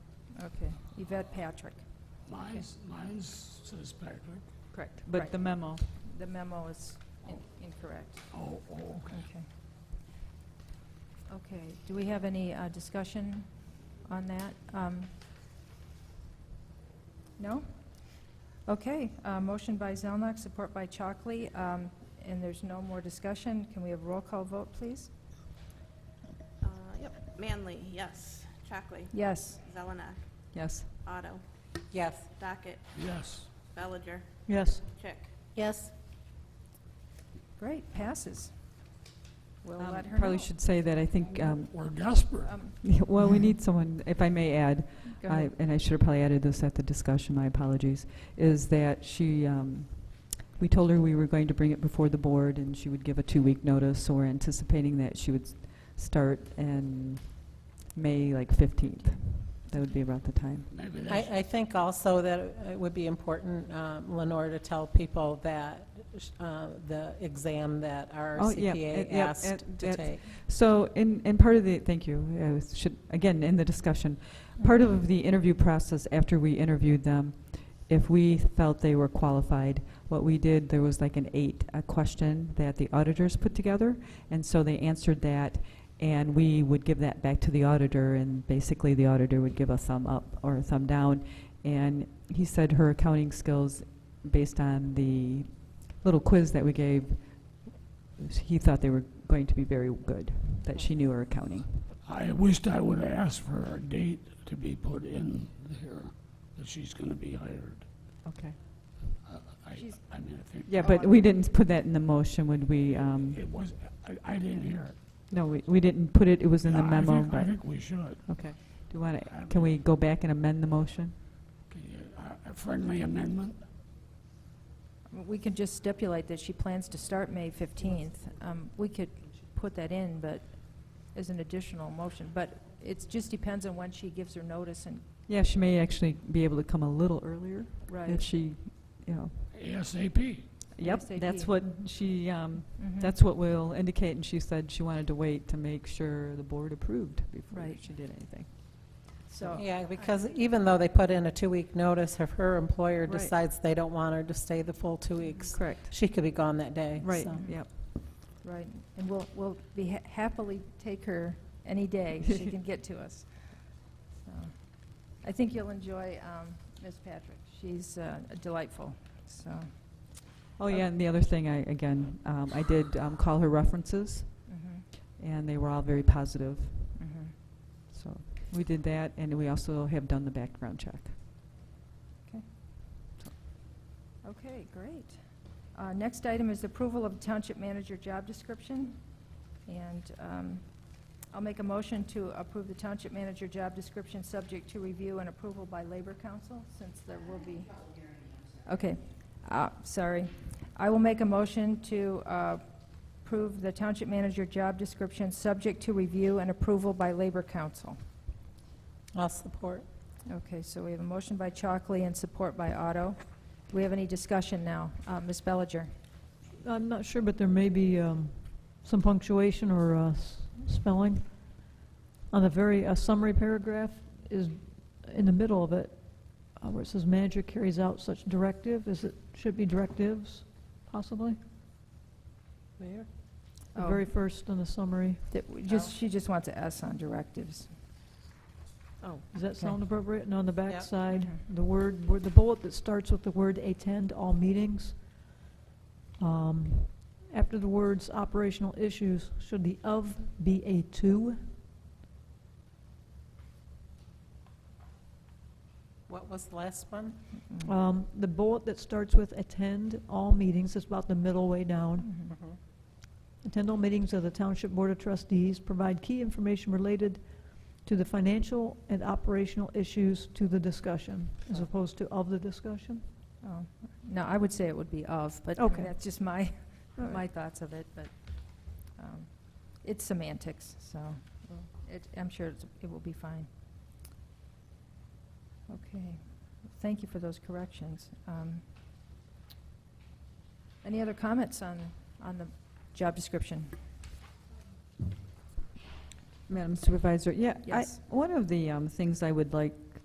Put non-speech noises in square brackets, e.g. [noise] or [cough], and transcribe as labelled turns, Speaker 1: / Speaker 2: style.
Speaker 1: Okay, Yvette Patrick.
Speaker 2: Mine's, mine's says Patrick.
Speaker 1: Correct.
Speaker 3: But the memo,
Speaker 1: The memo is in- incorrect.
Speaker 2: Oh, oh, okay.
Speaker 1: Okay. Okay, do we have any uh, discussion on that? Um, No? Okay, uh, motion by Zelnok, support by Chalkley, um, and there's no more discussion. Can we have roll call vote, please?
Speaker 4: Uh, Yep, Manley, yes. Chockley,
Speaker 1: Yes.
Speaker 4: Zelenak,
Speaker 3: yes.
Speaker 4: Otto,
Speaker 5: Yes.
Speaker 4: Docket,
Speaker 2: Yes.
Speaker 4: Bellinger,
Speaker 3: Yes.
Speaker 4: Chick.
Speaker 5: Yes.
Speaker 1: Great, passes. We'll
Speaker 3: Um,
Speaker 1: let her know.
Speaker 3: Probably should say that I think, um, [laughs]
Speaker 2: We're desperate.
Speaker 1: Um,
Speaker 3: well, we need someone, if I may add,
Speaker 1: Go
Speaker 3: I-
Speaker 1: ahead.
Speaker 3: and I should have probably added this at the discussion, my apologies, is that she, um, we told her we were going to bring it before the board, and she would give a two-week notice, so we're anticipating that she would s- start in May, like 15th. That would be about the time.
Speaker 2: Maybe
Speaker 5: I,
Speaker 2: that's,
Speaker 5: I think also that it would be important, um, Lenore, to tell people that uh, the exam that our
Speaker 3: Oh, yeah, it-
Speaker 5: CPA
Speaker 3: yep,
Speaker 5: asked
Speaker 3: it-
Speaker 5: to
Speaker 3: it's-
Speaker 5: take.
Speaker 3: So, in, and part of the, thank you, I was- should, again, in the discussion, part of the interview process after we interviewed them, if we felt they were qualified, what we did, there was like an eight, a question that the auditors put together, and so they answered that, and we would give that back to the auditor, and basically the auditor would give a thumb up or a thumb down, and he said her accounting skills, based on the little quiz that we gave, he thought they were going to be very good, that she knew her accounting.
Speaker 2: I wished I would have asked for a date to be put in here, that she's gonna be hired.
Speaker 3: Okay. Oh,
Speaker 2: I, I,
Speaker 1: She's-
Speaker 2: I mean, I think.
Speaker 3: Yeah, but we didn't put that in the motion, would we? um,
Speaker 2: It was, I, I didn't hear it.
Speaker 3: No, we we didn't put it, it was in the
Speaker 2: And I
Speaker 3: memo,
Speaker 2: think- I
Speaker 3: but,
Speaker 2: think we should.
Speaker 3: okay. Do you want to,
Speaker 2: I'm-
Speaker 3: can we go back and amend the motion?
Speaker 2: Can you- uh, a- A friendly amendment?
Speaker 1: We can just stipulate that she plans to start May 15th. Um, We could put that in, but as an additional motion, but it just depends on when she gives her notice and,
Speaker 3: Yeah, she may actually be able to come a little earlier if
Speaker 1: right.
Speaker 3: she, you know.
Speaker 2: ASAP.
Speaker 3: Yep, that's
Speaker 1: ASAP.
Speaker 3: what she, um,
Speaker 1: Mhm.
Speaker 3: that's what we'll indicate, and she said she wanted to wait to make sure the board approved before
Speaker 1: Right.
Speaker 3: she did anything.
Speaker 1: So,
Speaker 5: Yeah, because e-, even though they put in a two-week notice, if her employer
Speaker 3: Right.
Speaker 5: decides they don't want her to stay the full two weeks,
Speaker 3: Correct.
Speaker 5: she could be gone that day.
Speaker 3: Right,
Speaker 5: so.
Speaker 3: yep.
Speaker 1: right, and we'll, we'll be ha- happily take her any day she can get to
Speaker 3: [laughs]
Speaker 1: us. So, I think you'll enjoy um, Ms. Patrick. She's uh, delightful, so.
Speaker 3: Oh, yeah, and the other thing, I, again, um, I did um, call her references,
Speaker 1: mhm,
Speaker 3: and they were all very positive.
Speaker 1: mhm.
Speaker 3: So we did that, and we also have done the background check.
Speaker 1: Okay, great. Uh, Next item is approval of township manager job description. And um, I'll make a motion to approve the township manager job description, subject to review and approval by Labor Council, since there will be... Okay, uh, sorry. I will make a motion to uh, approve the township manager job description, subject to review and approval by Labor Council.
Speaker 5: I'll support.
Speaker 1: Okay, so we have a motion by Chalkley and support by Otto. Do we have any discussion now? Uh, Ms. Bellinger?
Speaker 6: I'm not sure, but there may be um, some punctuation or uh, s- spelling. On the very, a summary paragraph is in the middle of it, uh, where it says manager carries out such directive, is it, should be directives, possibly?
Speaker 5: Mayor?
Speaker 6: The
Speaker 1: Oh.
Speaker 6: very first on the summary,
Speaker 1: That we
Speaker 6: Oh.
Speaker 1: just, she just wants an S on directives.
Speaker 6: does Oh, that
Speaker 1: Okay. Mm-hmm.
Speaker 6: sound appropriate? And on the
Speaker 5: Yep.
Speaker 6: back side, the word, word- the bullet that starts with the word attend all meetings, um, after the words operational issues, should the of be a two?
Speaker 5: What was the last one?
Speaker 6: Um, The bullet that starts with attend all meetings is about the middle way down.
Speaker 1: Mhm. Mm-hmm.
Speaker 6: Attend all meetings of the Township Board of Trustees, provide key information related to the financial and operational issues to the discussion, as opposed to of the discussion.
Speaker 1: Oh, No, I would say it would be of, but I mean,
Speaker 6: Okay.
Speaker 1: that's just my,
Speaker 6: All right.
Speaker 1: [laughs] my thoughts of it, but um, it's semantics, so it, I'm sure it's- it will be fine. Okay, thank you for those corrections. Um, Any other comments on, on the job description?
Speaker 3: Madam Supervisor, yeah. I-
Speaker 1: Yes.
Speaker 3: One of the um, things I would like